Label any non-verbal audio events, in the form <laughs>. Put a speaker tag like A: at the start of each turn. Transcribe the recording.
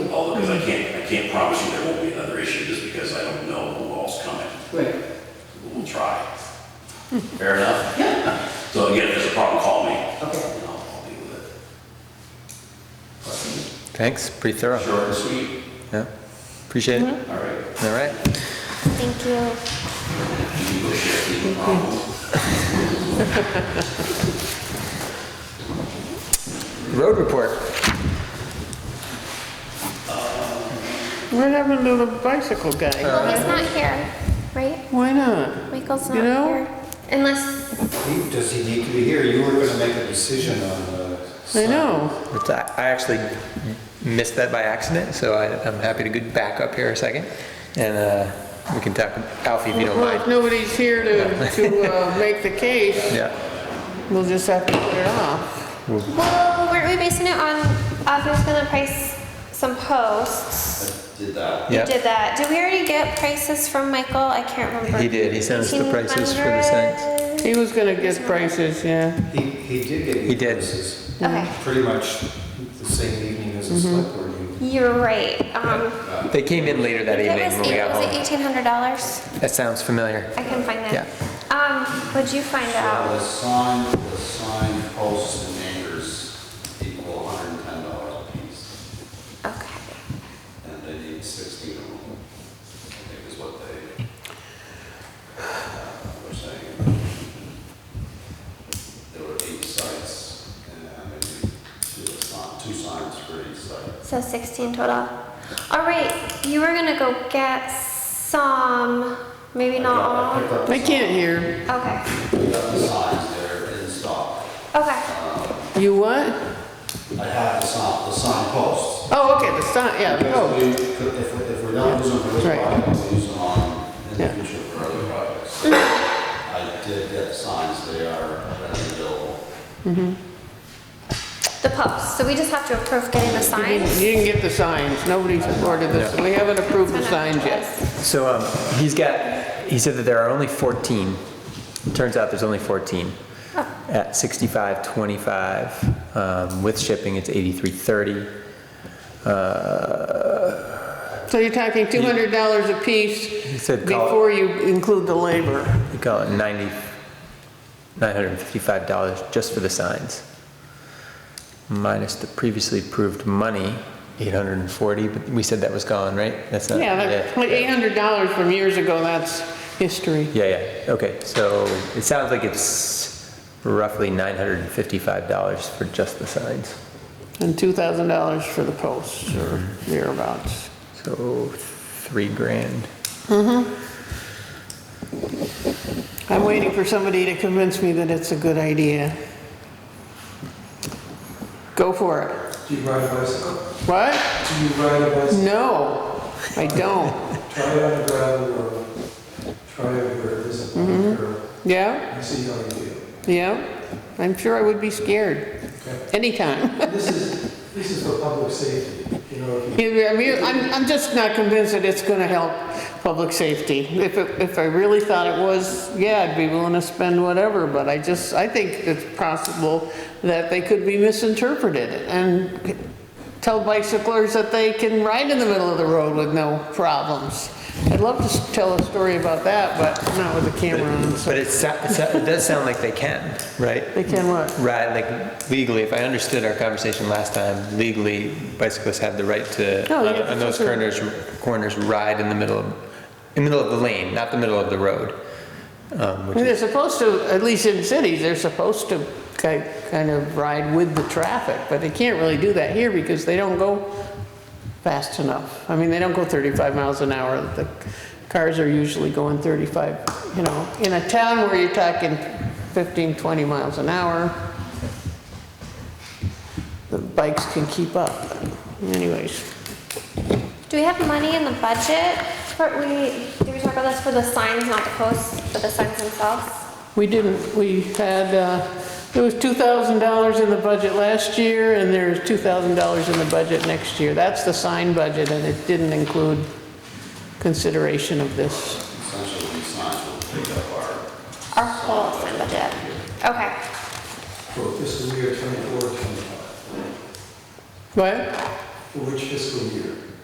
A: Oh, I can't, I can't promise you there won't be another issue just because I don't know who all's coming.
B: Right.
A: But We'll try. Fair enough?
B: Yeah.
A: So again, if there's a problem, call me.
B: Okay.
A: And I'll, I'll deal with
C: Thanks, pretty
A: it.
C: thorough.
A: Short and sweet,
C: Yeah, appreciate it.
A: all right.
C: All right.
D: Thank you.
A: You can go share if you have a problem.
C: Road report.
E: What happened to the bicycle guy?
D: Well, he's not here, right?
E: Why not?
D: Michael's
E: You
D: not
E: know?
D: here. Unless,
F: He- Does he need to be here? You were gonna make a decision on uh, the.
E: I
F: site.
E: know.
C: It's- I I actually missed that by accident, so I, I'm happy to get back up here a second. And uh, we can talk, Alfie, if you don't
E: Well, if
C: mind.
E: nobody's here to, to
C: <laughs>
E: uh, make the case,
C: Yeah,
E: we'll just have to put it off.
D: well, weren't we basing it on, uh, who's gonna price some posts?
F: Did that.
D: We
C: Yeah.
D: did that. Did we already get prices from Michael? I can't remember.
C: He did. He sent us the prices for the signs.
D: 1800?
E: He was gonna get prices, yeah.
F: He, he did get
C: He
F: you
C: did.
F: prices,
D: Okay,
F: pretty much the same evening as the
E: Mm-hmm.
F: select board meeting.
D: you're right. Um,
C: they came in later that
D: it
C: evening
D: was
C: when we
D: eight,
C: got
D: was it
C: home.
D: eighteen hundred dollars?
C: That sounds familiar.
D: I can find that.
C: Yeah.
D: Um, would you find
F: Well,
D: out?
F: the sign, the sign posts and anchors equal hundred and ten dollars a piece,
D: Okay.
F: and they need sixteen of them, I think is what they uh, were saying. There were eight sites, and I mean, two signs, two signs for each site.
D: So sixteen total. All right, you were gonna go get some, maybe not all.
F: I picked up
E: I can't hear.
D: Okay,
F: the signs there in stock.
D: okay.
E: You what?
F: I have the sign, the sign posts.
E: Oh, okay, the sign, yeah,
F: Because
E: oh,
F: we, could- if, we- if we're not using them for this
E: Right.
F: project, we'll use them on in the
E: Yeah.
F: future for other projects. I did get signs, they are readily available.
D: The post, so we just have to approve getting the
E: you
D: signs.
E: didn't get the signs. Nobody's ordered this. We haven't approved the signs yet.
C: So um, he's got, he said that there are only 14. Turns out there's only 14. At 65.25, um, with shipping, it's 83.30.
E: So you're talking two hundred dollars a piece
C: said call it-
E: before you include the labor.
C: We call it 90, $955 just for the signs. Minus the previously approved money, 840, but we said that was gone, right? That's not.
E: Yeah, that, like eight hundred dollars from years ago, that's history.
C: Yeah, yeah, okay, so it sounds like it's roughly $955 for just the signs.
E: And two thousand dollars for the posts or thereabouts.
C: So three grand.
E: I'm waiting for somebody to convince me that it's a good idea. Go for it.
G: Do you ride a bicycle?
E: What?
G: Do you ride a bicycle?
E: No, I don't. <laughs>
G: Try it on a gravel road. Try it where it isn't on a curb
E: Yeah,
G: and see how you feel.
E: yeah. I'm sure I would be scared
G: Okay.
E: anytime. <laughs>
G: This is, this is for public safety, you know, if you
E: I mean, I'm, I'm just not convinced that it's gonna help public safety. If, it- if I really thought it was, yeah, I'd be willing to spend whatever, but I just, I think it's possible that they could be misinterpreted and tell bicyclers that they can ride in the middle of the road with no problems. I'd love to s- tell a story about that, but not with the camera on, so.
C: But it sou- it sou- it does sound like they can, right?
E: They can what?
C: Right, like legally, if I understood our conversation last time, legally bicyclists have the right to,
E: No,
C: on
E: you have
C: on
E: to-
C: those corners, corners, ride in the middle, of- in the middle of the lane, not the middle of the road. Um,
E: I mean,
C: which-
E: They're supposed to, at least in cities, they're supposed to ki- kind of ride with the traffic, but they can't really do that here because they don't go fast enough. I mean, they don't go 35 miles an hour. The cars are usually going 35, you know. In a town where you're talking 15, 20 miles an hour, the bikes can keep up. Anyways,
D: Do we have money in the budget for, we, did we talk about this for the signs, not the posts, but the signs themselves?
E: we didn't, we had, uh, there was $2,000 in the budget last year, and there's $2,000 in the budget next year. That's the sign budget, and it didn't include consideration of this.
F: Essentially, these signs will pick up our
D: Our whole sign budget. Okay,
G: for fiscal year 24, 25.
E: What?
G: For which fiscal year?